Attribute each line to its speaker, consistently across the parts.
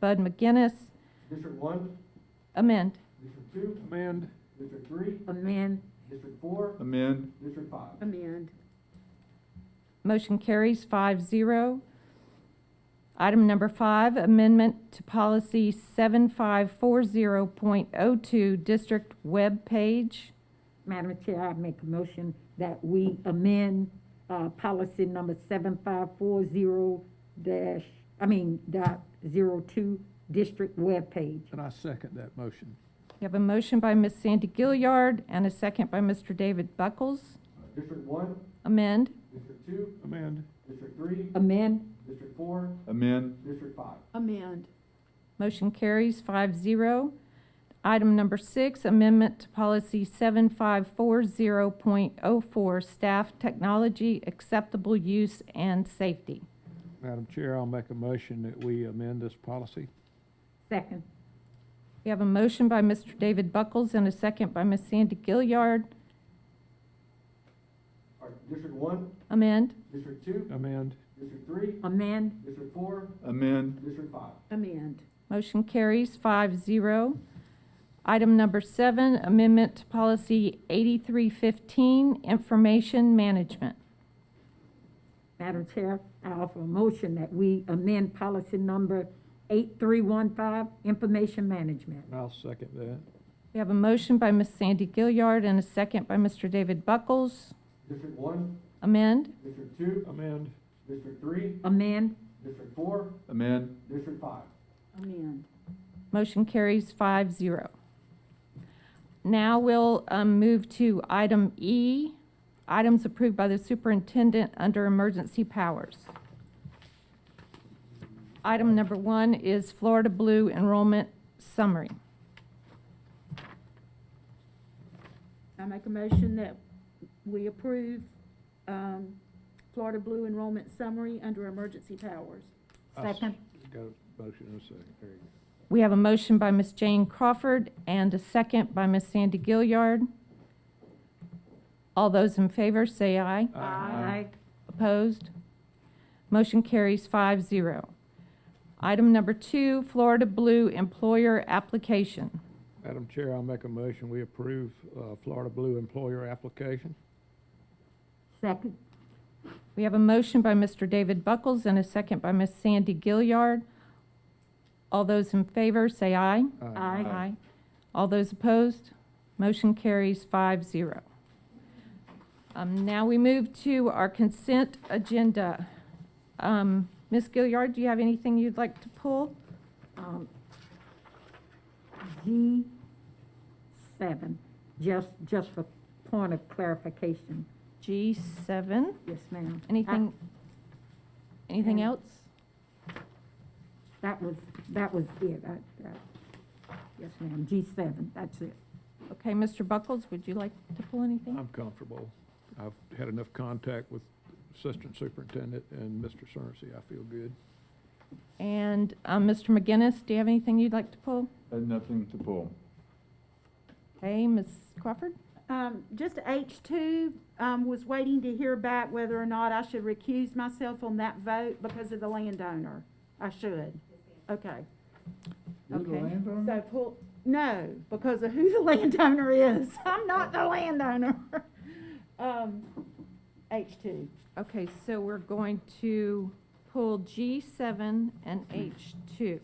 Speaker 1: Bud McGinnis,
Speaker 2: District one,
Speaker 1: amend.
Speaker 2: district two,
Speaker 3: Amend.
Speaker 2: district three,
Speaker 4: Amend,
Speaker 2: district four,
Speaker 3: Amend.
Speaker 2: district five.
Speaker 4: amend,
Speaker 1: Motion carries five zero. Item number five, amendment to policy seven five four zero point oh two, district web page.
Speaker 4: Madam Chair, I make a motion that we amend, uh, policy number seven five four zero dash, I mean, dot zero two, district webpage.
Speaker 3: And I second that motion.
Speaker 1: We have a motion by Ms. Sandy Gilliard and a second by Mr. David Buckles.
Speaker 2: Uh, District one,
Speaker 1: Amend.
Speaker 2: district two,
Speaker 3: Amend.
Speaker 2: district three,
Speaker 4: Amend,
Speaker 2: district four,
Speaker 3: Amend.
Speaker 2: district five.
Speaker 5: Amend,
Speaker 1: Motion carries five zero. Item number six, amendment to policy seven five four zero point oh four, staff technology acceptable use and safety.
Speaker 3: Madam Chair, I'll make a motion that we amend this policy.
Speaker 4: second,
Speaker 1: We have a motion by Mr. David Buckles and a second by Ms. Sandy Gilliard.
Speaker 2: All right, district one,
Speaker 1: Amend.
Speaker 2: district two,
Speaker 3: Amend.
Speaker 2: district three,
Speaker 4: amend,
Speaker 2: district four,
Speaker 3: Amend.
Speaker 2: district five.
Speaker 5: amend,
Speaker 1: Motion carries five zero. Item number seven, amendment to policy 8315, information management.
Speaker 4: Madam Chair, I offer a motion that we amend policy number eight three one five, information management.
Speaker 3: I'll second that.
Speaker 1: We have a motion by Ms. Sandy Gilliard and a second by Mr. David Buckles.
Speaker 2: District one,
Speaker 1: Amend.
Speaker 2: district two,
Speaker 3: Amend.
Speaker 2: district three,
Speaker 4: Amend,
Speaker 2: district four,
Speaker 3: Amend.
Speaker 2: district five.
Speaker 5: amend,
Speaker 1: Motion carries five zero. Now we'll um, move to item E, items approved by the superintendent under emergency powers. Item number one is Florida Blue enrollment summary.
Speaker 5: I make a motion that we approve, um, Florida Blue enrollment summary under emergency powers.
Speaker 3: I s-
Speaker 4: second,
Speaker 3: Got a motion and a second. There you
Speaker 1: We have a motion by Ms. Jane Crawford and a second by Ms. Sandy Gilliard. All those in favor, say aye.
Speaker 3: go.
Speaker 4: aye,
Speaker 1: Opposed? Motion carries five zero. Item number two, Florida Blue Employer Application.
Speaker 3: Madam Chair, I'll make a motion. We approve uh, Florida Blue employer application.
Speaker 4: second,
Speaker 1: We have a motion by Mr. David Buckles and a second by Ms. Sandy Gilliard. All those in favor, say aye.
Speaker 4: Aye.
Speaker 1: All those opposed? Motion carries five zero. Um, now we move to our consent agenda. Um, Ms. Gilliard, do you have anything you'd like to pull?
Speaker 4: um, G seven, just, just for point of clarification,
Speaker 1: G seven,
Speaker 4: yes, ma'am.
Speaker 1: anything, anything
Speaker 4: Mm.
Speaker 1: else?
Speaker 4: I- That was, that was it, I, I- yes, ma'am, G seven, that's it.
Speaker 1: Okay, Mr. Buckles, would you like to pull anything?
Speaker 3: I'm comfortable. I've had enough contact with Assistant Superintendent and Mr. Cerncy. I feel good.
Speaker 1: And, um, Mr. McGinnis, do you have anything you'd like to pull?
Speaker 6: Nothing to pull.
Speaker 1: Hey, Ms. Crawford?
Speaker 5: Um, just H two, um, was waiting to hear back whether or not I should recuse myself on that vote because of the landowner. I should. Okay,
Speaker 6: You're the
Speaker 5: Okay.
Speaker 6: landowner?
Speaker 5: so pull, no, because of who the landowner is. I'm not the landowner. Um, H two.
Speaker 1: Okay, so we're going to pull G7 and H2.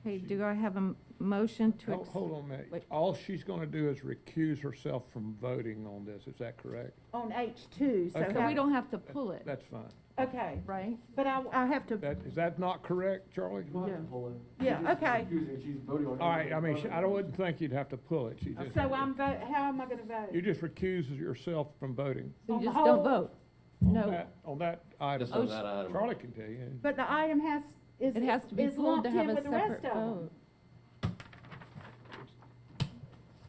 Speaker 1: Okay, do I have a m- motion to?
Speaker 3: Hold
Speaker 1: ex-
Speaker 3: hold on a minute.
Speaker 1: wait.
Speaker 3: All she's going to do is recuse herself from voting on this. Is that correct?
Speaker 5: on H two, so.
Speaker 3: Okay.
Speaker 1: So
Speaker 5: how-
Speaker 1: we don't have to pull it,
Speaker 3: That's fine.
Speaker 5: Okay,
Speaker 1: right?
Speaker 5: but I, I have to,
Speaker 3: That, is that not correct, Charlie?
Speaker 2: You'll have to
Speaker 5: Yeah.
Speaker 2: pull it.
Speaker 5: Yeah,
Speaker 2: You're just
Speaker 5: okay.
Speaker 2: Confusing, she's voting on.
Speaker 3: All right, I mean, she-
Speaker 2: everything.
Speaker 3: I don't- wouldn't think you'd have to pull it. She just,
Speaker 5: so I'm vote, how am I gonna vote?
Speaker 3: you just recuse yourself from voting
Speaker 1: So
Speaker 5: On
Speaker 1: you
Speaker 5: the
Speaker 1: just don't
Speaker 5: whole-
Speaker 1: vote?
Speaker 3: on
Speaker 1: No,
Speaker 3: that, on that item.
Speaker 1: on Oh,
Speaker 6: that item.
Speaker 3: Charlie can tell you.
Speaker 5: But the item has, is,
Speaker 1: it has to be
Speaker 5: is
Speaker 1: pulled
Speaker 5: lumped
Speaker 1: to have
Speaker 5: in
Speaker 1: a
Speaker 5: with the rest
Speaker 1: separate
Speaker 5: of them.
Speaker 1: vote.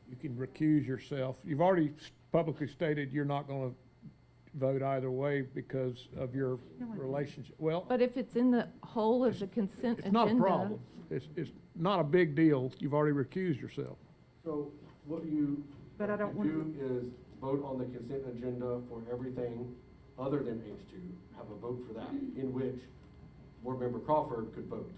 Speaker 3: You can recuse yourself. You've already s- publicly stated you're not going to vote either way because of your
Speaker 5: No, I-
Speaker 3: relationship. Well,
Speaker 1: But if it's in the whole of the consent agenda.
Speaker 3: it's not a problem. It's, it's not a big deal. You've already recused yourself.
Speaker 2: So what you
Speaker 5: But I don't
Speaker 2: could do is vote on the consent agenda for everything other than H two, have a vote for that, in which board member Crawford could vote.